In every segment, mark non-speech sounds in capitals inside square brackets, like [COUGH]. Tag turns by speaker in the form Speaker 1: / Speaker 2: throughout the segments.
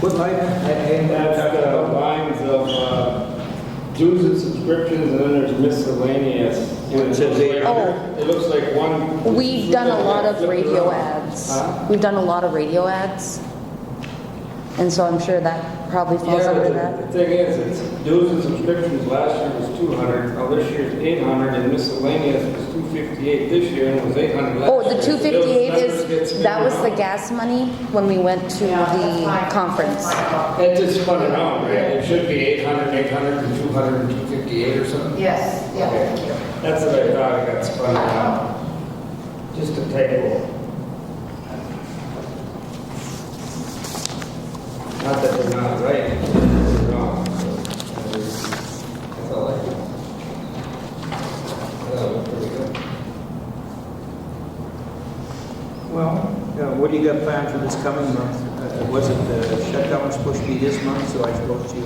Speaker 1: What line?
Speaker 2: And that's the lines of uh, dues and subscriptions, and then there's miscellaneous. And
Speaker 1: It says eight
Speaker 2: looks like- It looks like one.
Speaker 3: Oh. We've done a lot of radio ads.
Speaker 2: Huh?
Speaker 3: We've done a lot of radio ads. And so I'm sure that probably falls
Speaker 2: Yeah,
Speaker 3: under
Speaker 2: but
Speaker 3: that.
Speaker 2: the thing is, it's dues and subscriptions last year was 200, now this year's 800, and miscellaneous was 258 this year, and it was 800 last year.
Speaker 3: Oh, the
Speaker 2: So
Speaker 3: two fifty-eight
Speaker 2: those numbers
Speaker 3: is,
Speaker 2: get
Speaker 3: that was the
Speaker 2: spun
Speaker 3: gas money when we went to the conference.
Speaker 2: around. It just spun around, right? It should be 800, 800, and 200, and 258 or something.
Speaker 4: Yes, yeah, thank you.
Speaker 2: That's what I thought, it got spun around. Just a typo. Not that they're not right, they're wrong. That's all I can. That was pretty good.
Speaker 1: Well, uh, what do you got planned for this coming month? Uh, Was it the shutdown was supposed to be this month, so I suppose you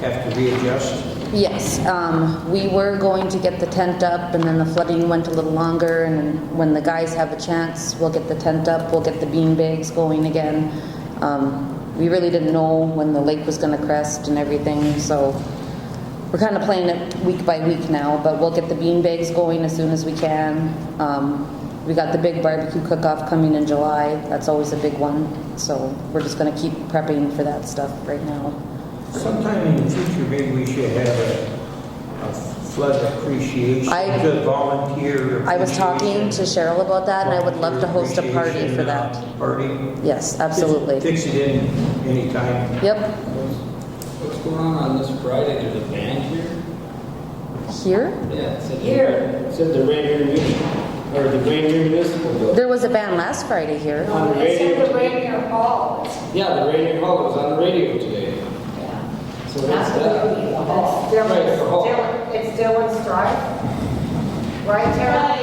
Speaker 1: have to readjust?
Speaker 3: Yes, um, we were going to get the tent up and then the flooding went a little longer and when the guys have a chance, we'll get the tent up, we'll get the bean bags going again. Um, we really didn't know when the lake was gonna crest and everything, so we're kinda playing it week by week now, but we'll get the bean bags going as soon as we can. Um, we got the big barbecue cook-off coming in July, that's always a big one, so we're just gonna keep prepping for that stuff right now.
Speaker 1: Sometime in the future, maybe we should have a a flood appreciation,
Speaker 3: I-
Speaker 1: to volunteer
Speaker 3: I was talking to
Speaker 1: appreciation.
Speaker 3: Cheryl about that, and I would love to host a party for
Speaker 1: Appreciation,
Speaker 3: that.
Speaker 1: uh, Party?
Speaker 3: Yes, absolutely.
Speaker 1: Fix it in anytime.
Speaker 3: Yep.
Speaker 5: What's going on on this Friday? There's a band here?
Speaker 3: Here?
Speaker 5: Yeah. it said-
Speaker 4: Here.
Speaker 2: It Said the Rainier Municipal, or the Rainier Municipal Building.
Speaker 3: There was a band last Friday here.
Speaker 2: On the
Speaker 4: It's in
Speaker 2: radio.
Speaker 4: the Rainier Hall. It's-
Speaker 2: Yeah, the Rainier Hall was on the radio today. So that's
Speaker 4: That's
Speaker 2: that. Right,
Speaker 4: Dylan's,
Speaker 2: the hall.
Speaker 4: Dylan- it's Dylan's Drive. Right, Tara?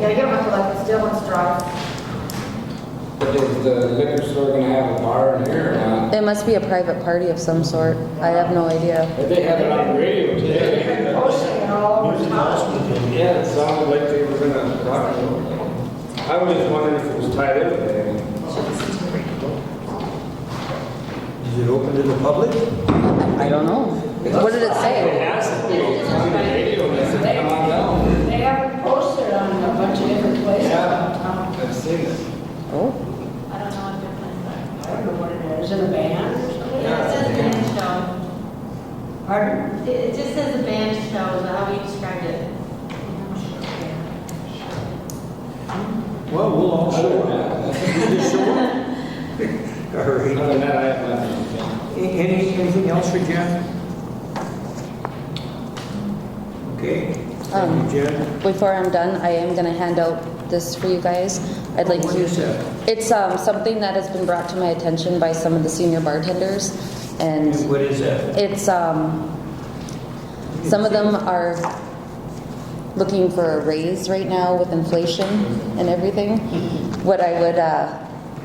Speaker 4: Yeah, you don't have to look, it's Dylan's Drive.
Speaker 2: But is the liquor store gonna have a bar in here or not?
Speaker 3: It must be a private party of some sort. I have no idea.
Speaker 2: But they had it on the radio
Speaker 4: They're
Speaker 2: [LAUGHS] today.
Speaker 4: pushing it all over town.
Speaker 2: Yeah, it sounded like they were gonna rock it. I was just wondering if it was tied in with anything.
Speaker 1: Is it open to the public?
Speaker 3: I don't know. What did it
Speaker 2: They
Speaker 3: say?
Speaker 2: asked me, it's on the radio, and I said, come on down.
Speaker 6: They have it posted on a bunch of different places.
Speaker 2: Yeah, I've seen it.
Speaker 3: Oh,
Speaker 7: I don't know what their plans are.
Speaker 6: I don't know what it is, is it a band or something?
Speaker 7: It says band show.
Speaker 6: Pardon?
Speaker 7: It it just says a band show, is that how you described it?
Speaker 1: Well, we'll all show up.
Speaker 2: Other
Speaker 1: You just show up. [LAUGHS] All right.
Speaker 2: than that, I have nothing.
Speaker 1: A- Any, anything else for Jen? Okay,
Speaker 3: Um,
Speaker 1: thank you, Jen.
Speaker 3: before I'm done, I am gonna hand out this for you guys. I'd like
Speaker 1: What
Speaker 3: you.
Speaker 1: is that?
Speaker 3: It's, um, something that has been brought to my attention by some of the senior bartenders, and
Speaker 1: What is that?
Speaker 3: It's, um, some of them are looking for a raise right now with inflation and everything. What I would, uh,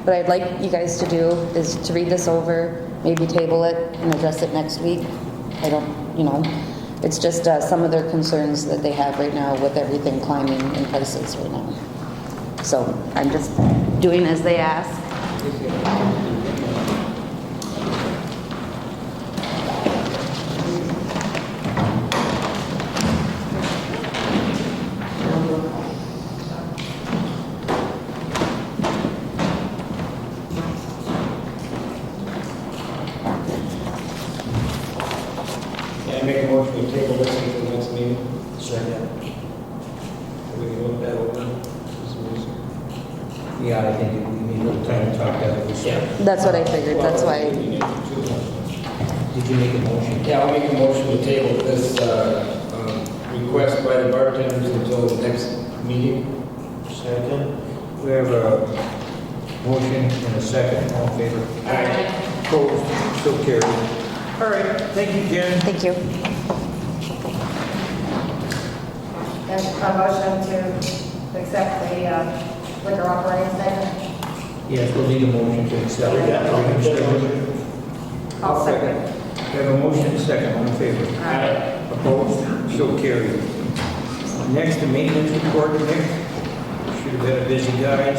Speaker 3: what I'd like you guys to do is to read this over, maybe table it and address it next week. I don't, you know, it's just, uh, some of their concerns that they have right now with everything climbing in prices right now. So I'm just doing as they ask.
Speaker 2: Yeah, I make a motion to table this until the next meeting.
Speaker 1: Second.
Speaker 2: We can look that over.
Speaker 1: Yeah, I think we need a little time to talk that over.
Speaker 3: That's what I figured, that's why,
Speaker 2: why.
Speaker 1: Did you make a motion?
Speaker 2: Yeah, I'll make a motion to table this uh, um, request by the bartenders until the next meeting.
Speaker 1: Second. We have a motion and a second, all in favor?
Speaker 2: Aye.
Speaker 1: Opposed, so carried. All right, thank you, Jen.
Speaker 3: thank you.
Speaker 4: And a motion to accept the uh, liquor operating statement.
Speaker 1: Yes, we'll need a motion to accept.
Speaker 4: I'll second.
Speaker 1: We have a motion, second, all in favor?
Speaker 2: Aye.
Speaker 1: Opposed? So carried. Next, the maintenance report, Nick. Should have been a busy guy.